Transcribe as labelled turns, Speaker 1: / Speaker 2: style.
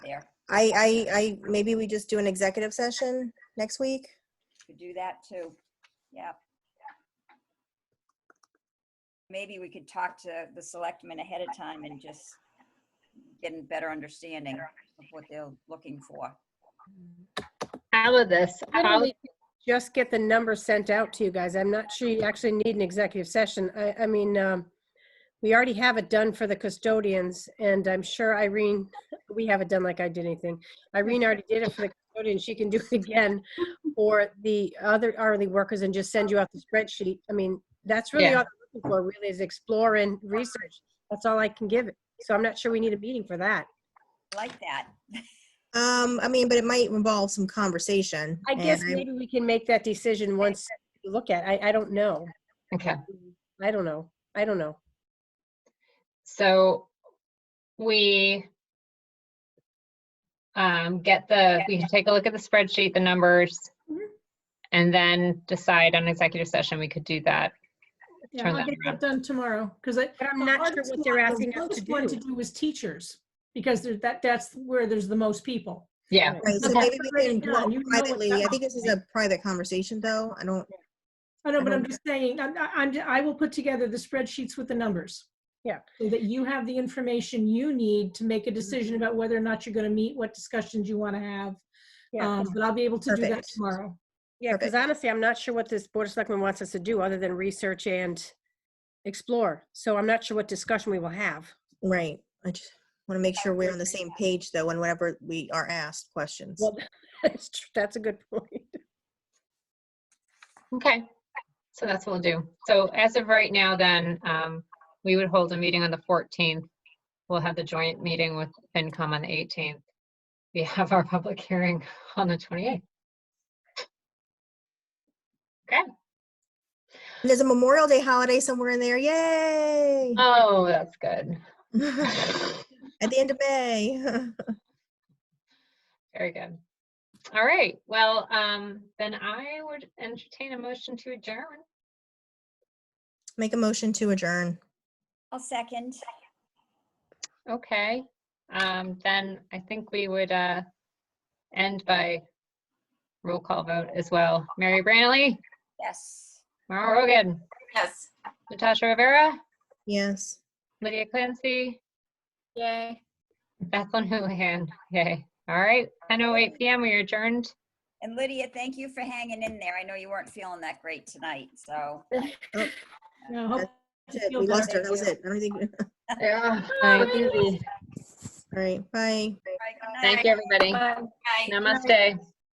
Speaker 1: I, I, I, maybe we just do an executive session next week?
Speaker 2: Could do that too. Yep. Maybe we could talk to the selectmen ahead of time and just get a better understanding of what they're looking for.
Speaker 3: How of this, how,
Speaker 4: Literally, Just get the number sent out to you guys. I'm not sure you actually need an executive session. I, I mean, um, we already have it done for the custodians and I'm sure Irene, we have it done like I did anything. Irene already did it for the custodian. She can do it again for the other hourly workers and just send you out the spreadsheet. I mean, that's really
Speaker 3: Yeah.
Speaker 4: all I'm looking for really is explore and research. That's all I can give it. So I'm not sure we need a meeting for that.
Speaker 2: Like that.
Speaker 1: Um, I mean, but it might involve some conversation.
Speaker 4: I
Speaker 1: and
Speaker 4: guess maybe we can make that decision once you look at, it. I, I don't know.
Speaker 3: okay,
Speaker 4: I don't know. I don't know.
Speaker 3: so we um, get the, we can take a look at the spreadsheet, the numbers,
Speaker 4: Mhm.
Speaker 3: and then decide on executive session. We could do that.
Speaker 5: Yeah,
Speaker 3: Turn
Speaker 5: I'll
Speaker 3: that
Speaker 5: get that done tomorrow, because I.
Speaker 4: But I'm
Speaker 5: the
Speaker 4: not sure
Speaker 5: hardest
Speaker 4: what they're
Speaker 5: one- the
Speaker 4: asking us to
Speaker 5: hardest one
Speaker 4: do.
Speaker 5: To do is teachers, because there's that, that's where there's the most people.
Speaker 3: Yeah,
Speaker 1: Right, so
Speaker 5: Okay.
Speaker 1: maybe we can do
Speaker 5: Yeah, you know
Speaker 1: it
Speaker 5: what's
Speaker 1: privately. I
Speaker 5: up.
Speaker 1: think this is a private conversation though. I don't,
Speaker 5: I know, but I'm
Speaker 1: don't-
Speaker 5: just saying, I'm, I'm, I will put together the spreadsheets with the numbers.
Speaker 4: Yeah.
Speaker 5: So that you have the information you need to make a decision
Speaker 4: Mm-hmm.
Speaker 5: about whether or not you're gonna meet, what discussions you wanna have.
Speaker 4: Yeah,
Speaker 5: Um, but I'll be able to do that
Speaker 1: Perfect.
Speaker 5: tomorrow.
Speaker 4: yeah, because
Speaker 1: perfect.
Speaker 4: honestly, I'm not sure what this Board of Selectmen wants us to do other than research and explore. So I'm not sure what discussion we will have.
Speaker 1: right. I just want to make sure we're on the same page though, and whenever we are asked questions.
Speaker 4: Well, that's tr- that's a good point.
Speaker 3: okay. So that's what we'll do. So as of right now, then, um, we would hold a meeting on the 14th. We'll have the joint meeting with FinCom on the 18th. We have our public hearing on the 28th. Okay.
Speaker 1: And There's a Memorial Day holiday somewhere in there. Yay!
Speaker 3: Oh, that's good.
Speaker 1: At the end of May.
Speaker 3: Very good. All right, well, um, then I would entertain a motion to adjourn.
Speaker 1: Make a motion to adjourn.
Speaker 2: I'll second.
Speaker 3: Okay, um, then I think we would, uh, end by roll call vote as well. Mary Branley,
Speaker 2: Yes.
Speaker 3: Mara Rogan,
Speaker 2: Yes.
Speaker 3: Natasha Rivera,
Speaker 1: Yes.
Speaker 3: Lydia Clancy,
Speaker 6: Yay.
Speaker 3: Bethlen Houlihan. Yay. All right, 10:08 PM, we are adjourned.
Speaker 2: And Lydia, thank you for hanging in there. I know you weren't feeling that great tonight, so.
Speaker 5: Now, hope you
Speaker 1: That's it.
Speaker 5: feel
Speaker 1: We lost
Speaker 5: better.
Speaker 1: her. That was it. I don't think, all
Speaker 3: Yeah.
Speaker 1: right, bye.
Speaker 2: All right, good night.
Speaker 3: Thank you, everybody.
Speaker 6: Bye.
Speaker 3: Namaste.